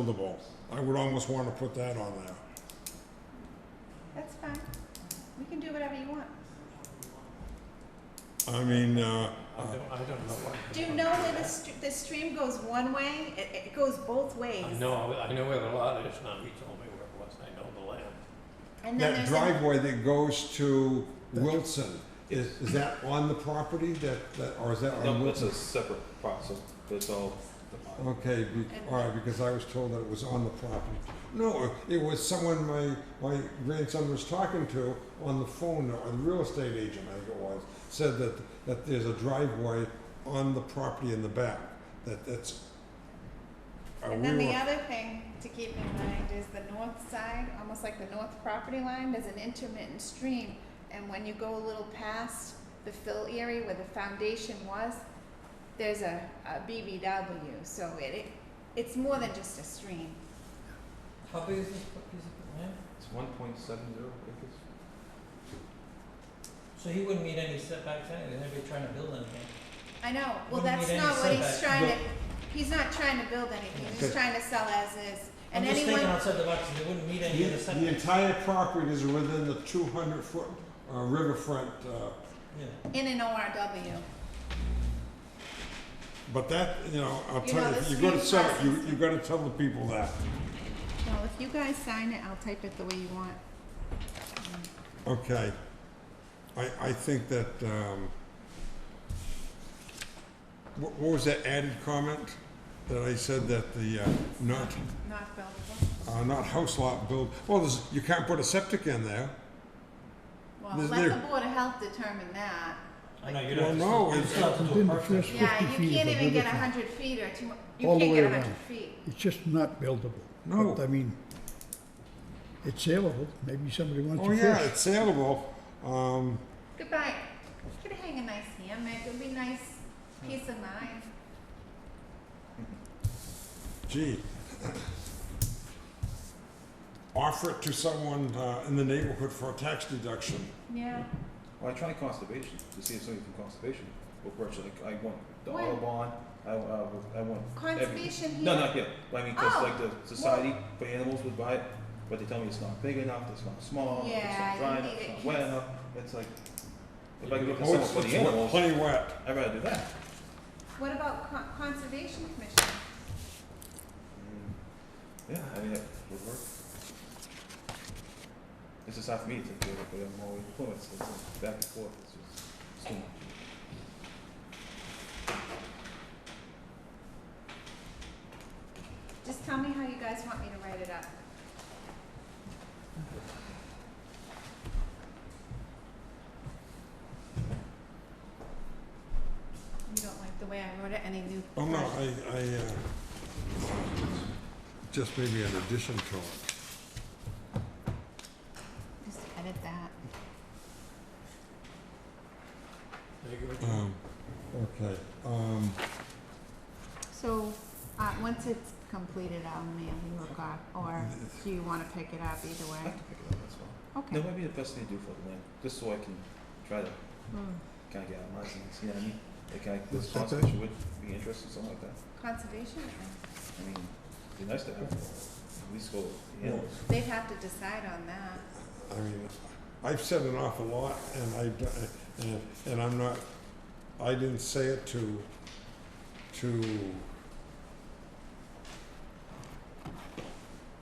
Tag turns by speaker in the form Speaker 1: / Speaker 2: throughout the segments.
Speaker 1: buildable. I would almost want to put that on there.
Speaker 2: That's fine. We can do whatever you want.
Speaker 1: I mean, uh,
Speaker 3: I don't, I don't know what.
Speaker 2: Do you know that the, st- the stream goes one way? It, it goes both ways.
Speaker 3: I know, I know where the lot is now, he told me where it was, I know the land.
Speaker 2: And then
Speaker 1: that
Speaker 2: there's a-
Speaker 1: driveway that goes to Wilson, is, is that on the property that, that, or is that on
Speaker 4: No, that's
Speaker 1: Wilson?
Speaker 4: a separate parcel, that's all. defined.
Speaker 1: Okay, be, all right, because I was told that it was on the property. No, uh, it was someone my, my grandson was talking to on the phone, or the real estate agent, I think it was, said that, that there's a driveway on the property in the back, that, that's. uh,
Speaker 2: And then
Speaker 1: we
Speaker 2: the
Speaker 1: were-
Speaker 2: other thing to keep in mind is the north side, almost like the north property line, there's an intermittent stream. And when you go a little past the fill area where the foundation was, there's a, a BBW, so it, it, it's more than just a stream.
Speaker 5: How big is this piece of land?
Speaker 4: It's one point seven zero acres.
Speaker 5: So he wouldn't meet any setbacks anyway, they'd be trying to build anything.
Speaker 2: I know, well,
Speaker 5: Wouldn't
Speaker 2: that's
Speaker 5: need any
Speaker 2: not what he's
Speaker 5: setback,
Speaker 2: trying to,
Speaker 5: but-
Speaker 2: he's not trying to build anything, he's just trying to sell as is.
Speaker 5: I'm
Speaker 2: And
Speaker 5: just thinking
Speaker 2: anyone,
Speaker 5: outside the box, and they wouldn't meet any of
Speaker 1: The
Speaker 5: the
Speaker 1: the
Speaker 5: setbacks.
Speaker 1: entire property is within the two hundred foot uh, riverfront, uh,
Speaker 5: Yeah,
Speaker 2: in an ORW,
Speaker 1: but that, you know, I'll
Speaker 2: You
Speaker 1: tell
Speaker 2: know,
Speaker 1: you,
Speaker 2: this
Speaker 1: you gotta
Speaker 2: means
Speaker 1: sell, you,
Speaker 2: process.
Speaker 1: you gotta tell the people that,
Speaker 2: well, if you guys sign it, I'll type it the way you want.
Speaker 1: okay? I, I think that, um, what, what was that added comment? That I said that the, uh, not,
Speaker 2: Not buildable,
Speaker 1: uh, not house lot build, well, there's, you can't put a septic in there.
Speaker 2: well,
Speaker 1: There's-
Speaker 2: let
Speaker 1: there-
Speaker 2: the Board of Health determine that.
Speaker 5: I know, you'd
Speaker 1: Well,
Speaker 5: have to,
Speaker 1: no,
Speaker 5: still- you'd
Speaker 1: it's-
Speaker 5: still have to do a
Speaker 6: Within the
Speaker 5: perk test.
Speaker 6: first-
Speaker 2: Yeah,
Speaker 6: 50
Speaker 2: you
Speaker 6: feet
Speaker 2: can't
Speaker 6: is a
Speaker 2: even get a
Speaker 6: river front.
Speaker 2: hundred feet or two, you
Speaker 6: All
Speaker 2: can't
Speaker 6: the way
Speaker 2: get a
Speaker 6: around.
Speaker 2: hundred feet.
Speaker 6: It's just not buildable.
Speaker 1: No.
Speaker 6: But, I mean, it's saleable, maybe somebody wants
Speaker 1: Oh,
Speaker 6: to
Speaker 1: yeah,
Speaker 6: fish.
Speaker 1: it's saleable, um,
Speaker 2: Goodbye, you could hang a nice hammock, it'd be nice, peace of mind.
Speaker 1: gee, offer it to someone uh, in the neighborhood for a tax deduction.
Speaker 2: Yeah,
Speaker 4: Well, I tried conservation, to see if somebody from conservation will purchase, like, I want the
Speaker 2: What?
Speaker 4: Audubon, I, uh, I want. every-
Speaker 2: conservation here.
Speaker 4: No, not yet, but I mean, cause
Speaker 2: Oh,
Speaker 4: like the society for animals would buy it, but they tell me it's not big enough, it's not small, it's
Speaker 2: Yeah,
Speaker 4: not
Speaker 2: you
Speaker 4: dry
Speaker 2: need it
Speaker 4: enough, it's not
Speaker 2: kids-
Speaker 4: wet enough, it's like, if I
Speaker 3: You
Speaker 4: can
Speaker 3: do-
Speaker 4: get
Speaker 1: Oh,
Speaker 4: someone
Speaker 1: it's,
Speaker 4: for
Speaker 1: it's
Speaker 4: the
Speaker 1: wet,
Speaker 4: animals,
Speaker 1: plenty wet.
Speaker 4: I'd rather do that.
Speaker 2: What about con- conservation commission?
Speaker 4: Mm, Yeah, I mean, that would work. It's just hard for me to think of it, but I'm always influenced, it's like back and forth, it's just, it's too much.
Speaker 2: Just tell me how you guys want me to write it up. You don't like the way I wrote it, any new?
Speaker 1: Oh, no, I, I, uh, just maybe an addition to it.
Speaker 2: Just edit that.
Speaker 3: I agree with you.
Speaker 1: Um, okay, um,
Speaker 2: So, uh, once it's completed, I'll mail you a copy, or do you wanna pick it up either
Speaker 4: I
Speaker 2: way?
Speaker 4: have to pick it up, that's fine.
Speaker 2: Okay.
Speaker 4: That might be the best thing to do for the land, just so I can try to
Speaker 2: Hmm.
Speaker 4: kind of get out of my zone, see what I mean? Like, can I, this
Speaker 6: That's okay.
Speaker 4: conservation would be interested, something like that.
Speaker 2: Conservation,
Speaker 4: I mean, it'd be nice to have, at least go, you know,
Speaker 2: they'd have to decide on that.
Speaker 1: I mean, I've said an awful lot, and I, d- and, and I'm not, I didn't say it to, to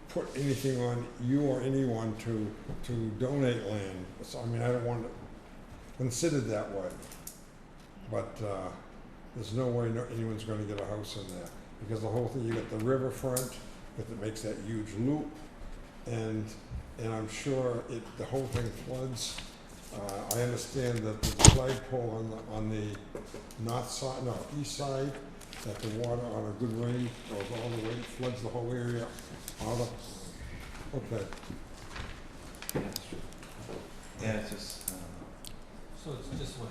Speaker 1: put anything on you or anyone to, to donate land. So, I mean, I don't want it considered that way. But, uh, there's no way no- anyone's gonna get a house in there, because the whole thing, you got the riverfront, but it makes that huge loop, and and I'm sure it, the whole thing floods. Uh, I understand that the flagpole on the, on the north side, no, east side, that the water on a good rain goes all the way, floods the whole area, all the, okay.
Speaker 4: yeah, it's true. Yeah, it's just, I don't know.
Speaker 3: So it's just what,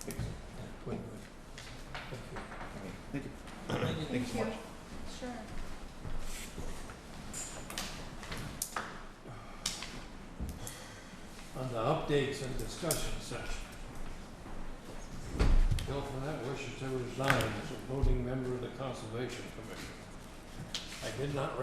Speaker 4: Thank you.
Speaker 3: yeah, Twin Wood. Okay.
Speaker 4: I mean, Thank you,
Speaker 3: Thank you.
Speaker 4: thank you so much.
Speaker 2: Sure.
Speaker 3: On the updates and discussion section. Bill Follett wishes to resign as a voting member of the Conservation Commission. I did not